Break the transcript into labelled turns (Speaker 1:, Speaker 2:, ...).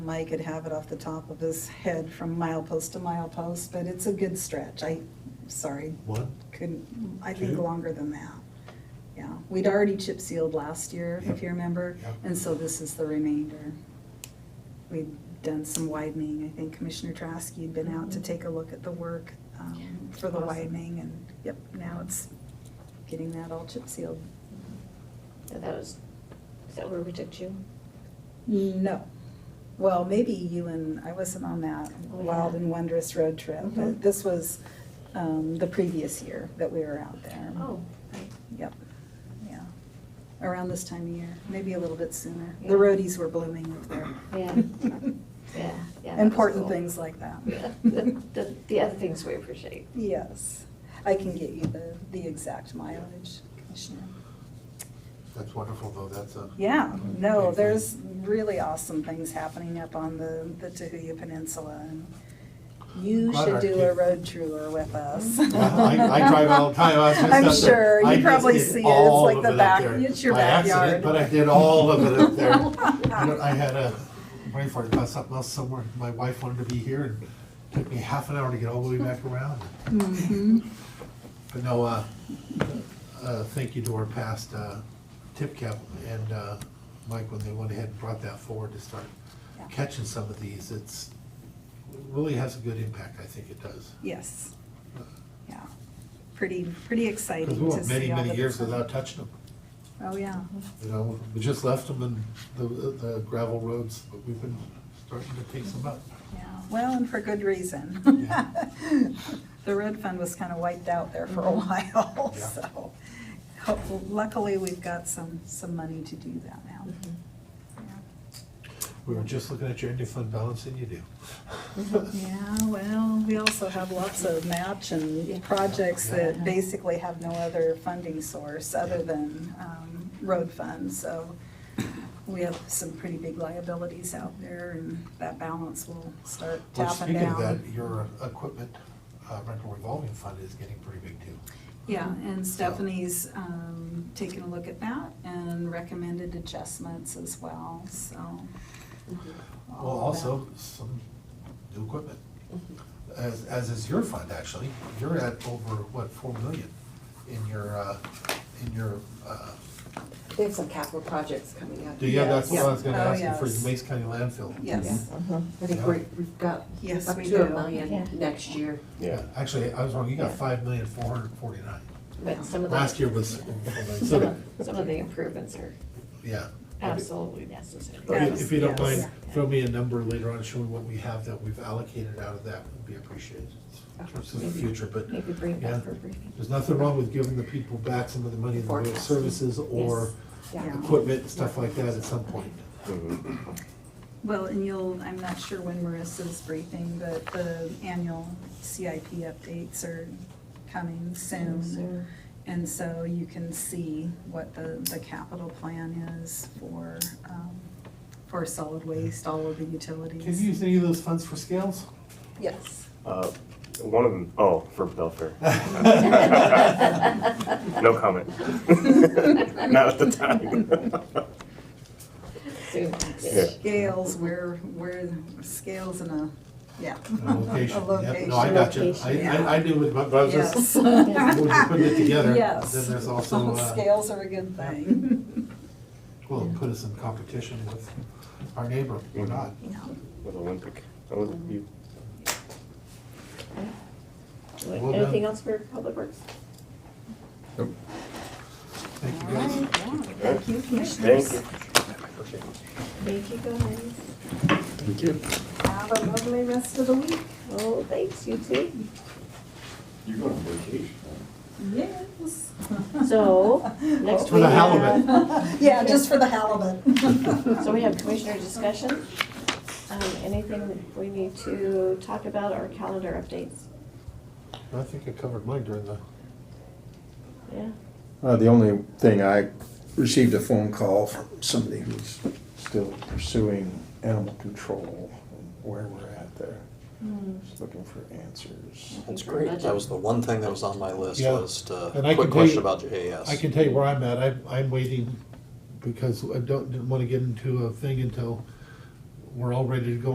Speaker 1: Mike could have it off the top of his head from milepost to milepost, but it's a good stretch. I, sorry,
Speaker 2: What?
Speaker 1: couldn't, I think
Speaker 2: Two?
Speaker 1: longer than that. Yeah, we'd already chip sealed last year, if
Speaker 2: Yep.
Speaker 1: you remember,
Speaker 2: Yep.
Speaker 1: and so this is the remainder. We've done some widening. I think Commissioner Trask, you'd been out to take a look at the work um,
Speaker 3: Mm-hmm. Yeah.
Speaker 1: for the
Speaker 3: Awesome.
Speaker 1: widening, and yep, now it's getting that all chip sealed.
Speaker 3: So that was, is that where we took June?
Speaker 1: No. Well, maybe you and, I wasn't on that
Speaker 3: Oh,
Speaker 1: wild
Speaker 3: yeah.
Speaker 1: and wondrous road trip, but
Speaker 3: Mhm.
Speaker 1: this was um, the previous year that we were out there.
Speaker 3: Oh.
Speaker 1: Yep, yeah. Around this time of year, maybe a little bit sooner. The
Speaker 3: Yeah.
Speaker 1: roadies were blooming up there.
Speaker 3: Yeah. Yeah, yeah. that was
Speaker 1: Important
Speaker 3: cool.
Speaker 1: things like that.
Speaker 3: Yeah, The, the- the other things we appreciate.
Speaker 1: Yes. I can get you the, the exact mileage, Commissioner.
Speaker 2: That's wonderful, though, that's a.
Speaker 1: Yeah, no, there's really awesome things happening up on the, the Tahuya Peninsula. and You
Speaker 2: Glad
Speaker 1: should
Speaker 2: our
Speaker 1: do a
Speaker 2: kid-
Speaker 1: road tour with us.
Speaker 2: I, I drive all the time, I was just.
Speaker 1: I'm
Speaker 2: up there.
Speaker 1: sure,
Speaker 2: I
Speaker 1: you
Speaker 2: just
Speaker 1: probably
Speaker 2: did
Speaker 1: see it,
Speaker 2: all
Speaker 1: it's like
Speaker 2: of
Speaker 1: the
Speaker 2: up
Speaker 1: back,
Speaker 2: there.
Speaker 1: it's your
Speaker 2: By accident,
Speaker 1: backyard.
Speaker 2: But I did all of it up there. You know, I had a, waiting for it, about something else somewhere, my wife wanted to be here, and it took me half an hour to get all the way back around.
Speaker 1: Mhm.
Speaker 2: But no, uh, uh, thank you to our past, uh, tip cap and, uh, Mike, when they went ahead and brought that forward to start
Speaker 1: Yeah.
Speaker 2: catching some of these, it's, really has a good impact, I think it does.
Speaker 1: Yes, yeah. Pretty, pretty exciting to
Speaker 2: Because
Speaker 1: see all the.
Speaker 2: we went many, many years
Speaker 1: different-
Speaker 2: without touching them,
Speaker 1: Oh, yeah.
Speaker 2: you know, we just left them in the, the gravel roads, but we've been starting to take some up.
Speaker 1: Yeah, well, and for good reason.
Speaker 2: Yeah.
Speaker 1: The road fund was kind of wiped out there for a while,
Speaker 2: Mm-hmm. Yeah.
Speaker 1: so hopeful- luckily, we've got some, some money to do that now.
Speaker 3: Mm-hmm.
Speaker 2: We were just looking at your ending fund balance and you do.
Speaker 1: Yeah, well, we also have lots of match
Speaker 3: Yeah.
Speaker 1: and projects that
Speaker 3: Yeah.
Speaker 1: basically have no other funding source other
Speaker 2: Yeah.
Speaker 1: than um, road funds, so we have some pretty big liabilities out there, and that balance will start
Speaker 2: Well,
Speaker 1: tapping
Speaker 2: speaking of that,
Speaker 1: down.
Speaker 2: your equipment uh, rental revolving fund is getting pretty big too.
Speaker 1: Yeah, and Stephanie's um, taken a look at that and recommended adjustments as well, so. all
Speaker 2: Well,
Speaker 1: of
Speaker 2: also, some new equipment, as, as is your fund, actually. You're at over, what, four million in your, uh, in your, uh,
Speaker 4: They have some capital projects coming up.
Speaker 2: do you have, that's what I was gonna
Speaker 1: Yeah.
Speaker 2: ask you for
Speaker 1: Oh, yes.
Speaker 2: the Mace County landfill.
Speaker 1: that. Yes,
Speaker 4: I think we're- we've got
Speaker 1: Yes,
Speaker 4: up
Speaker 1: we
Speaker 4: to a
Speaker 1: do.
Speaker 3: Yeah.
Speaker 4: million next year.
Speaker 2: Yeah, actually, I was wrong, you got five million, four hundred and forty-nine.
Speaker 3: But some of the.
Speaker 2: Last year was,
Speaker 3: Some
Speaker 2: so,
Speaker 3: of some of the improvements are
Speaker 2: yeah.
Speaker 3: absolutely necessary.
Speaker 2: If you- If you don't
Speaker 1: Yes.
Speaker 2: mind, throw me a number later on, showing what we have that we've allocated out of that would be appreciated in terms of the future, but
Speaker 3: Maybe bring it back
Speaker 2: Yeah.
Speaker 3: for briefing.
Speaker 2: There's nothing wrong with giving the people back some of the money in the way of
Speaker 4: Forecast.
Speaker 2: services or
Speaker 1: Yeah.
Speaker 2: equipment, and stuff like that at some point.
Speaker 5: Mm-hmm.
Speaker 1: well, and you'll, I'm not sure when Marissa's briefing, but the annual CIP updates are coming soon.
Speaker 3: So,
Speaker 1: And so you can see what the, the capital plan is for, um, for solid waste, all of the utilities.
Speaker 2: Can you use any of those funds for scales?
Speaker 1: Yes.
Speaker 5: Uh, One of them, oh, for Belfair. No comment. Not at the time.
Speaker 3: Soon.
Speaker 5: Yeah.
Speaker 1: Scales, where, where, scales in a, yeah.
Speaker 2: A location,
Speaker 1: A
Speaker 2: yep, no, I got you. I,
Speaker 3: Location.
Speaker 2: I, I knew, what- but I was just,
Speaker 1: Yes.
Speaker 2: when you put it together, then
Speaker 1: Yes.
Speaker 2: there's also, uh,
Speaker 1: Scales are a good thing.
Speaker 2: well, it put us in competition with our neighbor, or not.
Speaker 5: With Olympic. Oh, you-
Speaker 2: Well done.
Speaker 3: Anything else for Public Works?
Speaker 2: Thank you
Speaker 1: All
Speaker 2: guys.
Speaker 1: right, yeah. Thank you,
Speaker 5: Thank
Speaker 1: commissioners.
Speaker 5: you.
Speaker 3: Thank you guys.
Speaker 5: Thank you.
Speaker 1: Have a lovely rest of the week.
Speaker 3: Oh, thanks, you too.
Speaker 6: You're going on vacation, huh?
Speaker 1: Yes. Oh,
Speaker 3: So, Oh, next
Speaker 2: For
Speaker 3: we
Speaker 2: the
Speaker 3: have,
Speaker 2: halibut.
Speaker 1: Yeah, just for the halibut.
Speaker 3: so we have commissioner discussion. Um, anything that we need to talk about or calendar updates?
Speaker 2: I think I covered mine during the,
Speaker 3: Yeah,
Speaker 7: Uh, the only thing, I received a phone call from somebody who's still pursuing animal control and where we're at there. Just looking for answers.
Speaker 8: That's
Speaker 3: Thank you very
Speaker 8: great.
Speaker 3: much.
Speaker 8: That was the one thing that was on my list
Speaker 2: Yeah.
Speaker 8: was uh,
Speaker 2: And I can
Speaker 8: quick
Speaker 2: tell you-
Speaker 8: question about your AS.
Speaker 2: I can tell you where I'm at, I'm, I'm waiting, because I don't, didn't wanna get into a thing until we're all ready to go